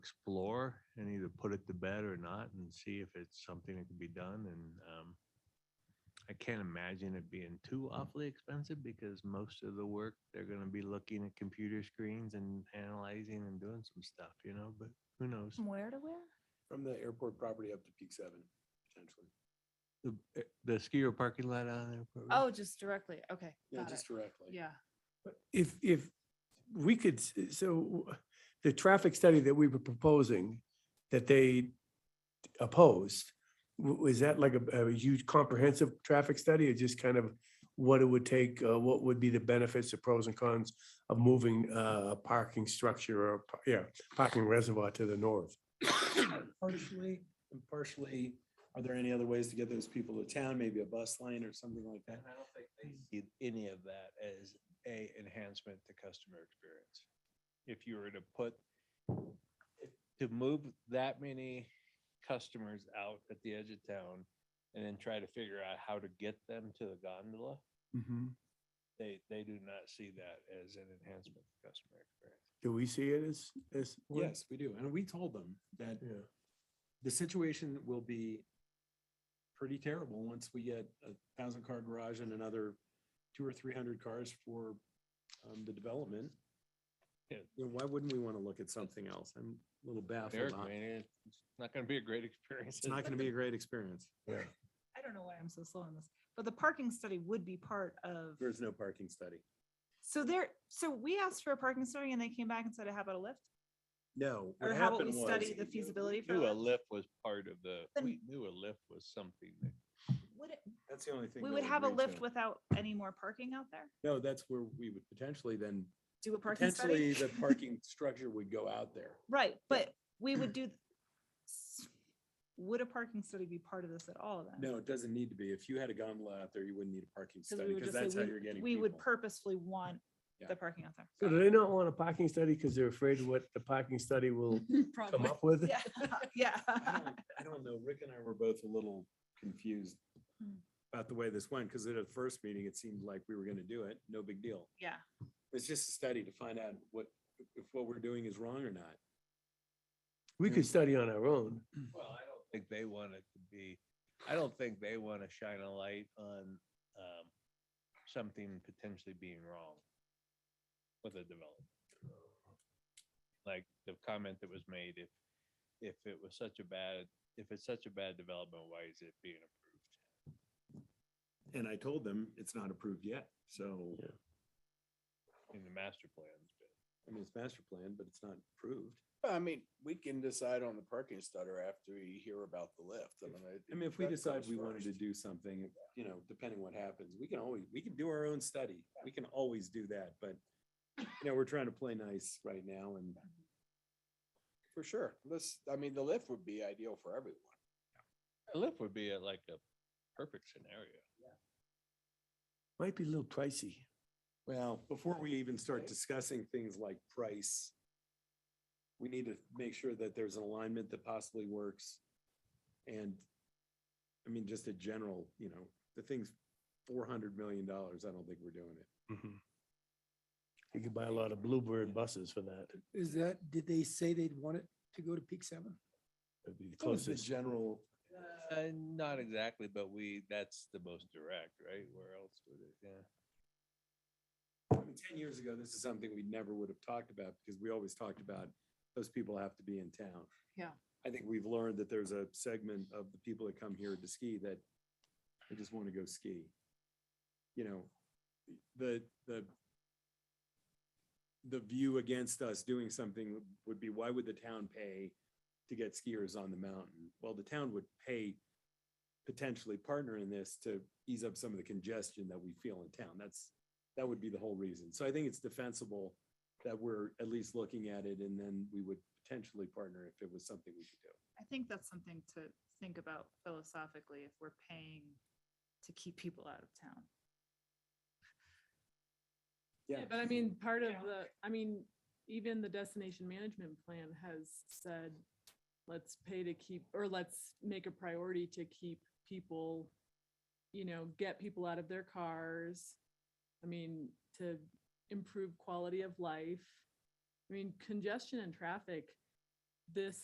explore and either put it to bed or not and see if it's something that can be done and, um, I can't imagine it being too awfully expensive because most of the work, they're gonna be looking at computer screens and analyzing and doing some stuff, you know, but who knows? From where to where? From the airport property up to Peak Seven, potentially. The, eh, the skier parking lot on there. probably. Oh, just directly. Okay. Yeah, Got it. just directly. Yeah. But If, if we could, s- so the traffic study that we were proposing, that they opposed, w- was that like a, a huge comprehensive traffic study or just kind of what it would take, uh, what would be the benefits, the pros and cons of moving uh, a parking structure or, pa- yeah, parking reservoir to the north? Partially, and partially, are there any other ways to get those people to town? Maybe a bus line or something like that? And I don't think they see any of that as a enhancement to customer experience. If you were to put, if- to move that many customers out at the edge of town and then try to figure out how to get them to the gondola, they, they do not see that as an enhancement to customer experience. Do we see it as, as? one? Yes, we do. And we told them that Yeah. the situation will be pretty terrible once we get a thousand car garage and another two or three hundred cars for um, the development. Yeah. You know, Why wouldn't we want to look at something else? I'm a little baffled. Eric, on- I mean, it's not gonna be a great experience. It's not going to be a great experience. I don't know why I'm so slow on this, but the parking study would be part of, There's no parking study. so there, so we asked for a parking study and they came back and said, how about a lift? No. Or what how about we happened was- study the feasibility for Knew a that? lift was part of the, Then- we knew a lift was something that Would it- That's the only thing. We they would have a agreed lift to. without any more parking out there? No, that's where we would potentially then, Do a parking potentially study? the parking structure would go out there. Right, but we would do, s- would a parking study be part of this at all then? No, it doesn't need to be. If you had a gondola out there, you wouldn't need a parking Because we study would because just say that's how we- you're getting We would people. purposefully want Yeah. the parking out there. So do they not want a parking study because they're afraid of what the parking study will come up with? Yeah, I yeah. don't- I don't know. Rick and I were both a little confused Hmm. about the way this went, because at a first meeting, it seemed like we were gonna do it, no big deal. Yeah. It's just a study to find out what, if what we're doing is wrong or not. We could study on our own. Well, I don't think they want it to be, I don't think they want to shine a light on um, something potentially being wrong with a development. Like the comment that was made, if, if it was such a bad, if it's such a bad development, why is it being approved? And I told them it's not approved yet, so, In the master plans, but I mean, it's master plan, but it's not approved. I mean, we can decide on the parking stutter after we hear about the lift. I mean, I mean, if we that decide comes we wanted to first. do something, you know, depending what happens, we can always, we can do our own study. We can always do that, but, you know, we're trying to play nice right now and For sure. This, I mean, the lift would be ideal for everyone. a lift would be a- like a perfect scenario. Might be a little pricey. Well, before we even start discussing things like price, we need to make sure that there's an alignment that possibly works. And, I mean, just a general, you know, the thing's four hundred million dollars. I don't think we're doing it. You could buy a lot of Bluebird buses for that. Is that, did they say they'd want it to go to peak seven? It'd be the What was the closest. general, Uh, not exactly, but we, that's the most direct, right? Where else would it, yeah. I mean, ten years ago, this is something we never would have talked about because we always talked about those people have to be in town. Yeah. I think we've learned that there's a segment of the people that come here to ski that they just want to go ski. You know, the, the the view against us doing something would be, why would the town pay to get skiers on the mountain? Well, the town would pay potentially partner in this to ease up some of the congestion that we feel in town. That's, that would be the whole reason. So I think it's defensible that we're at least looking at it and then we would potentially partner if it was something we could do. I think that's something to think about philosophically if we're paying to keep people out of town. Yeah. But I mean, part of Yeah. the, I mean, even the destination management plan has said, let's pay to keep, or let's make a priority to keep people, you know, get people out of their cars. I mean, to improve quality of life. I mean, congestion and traffic this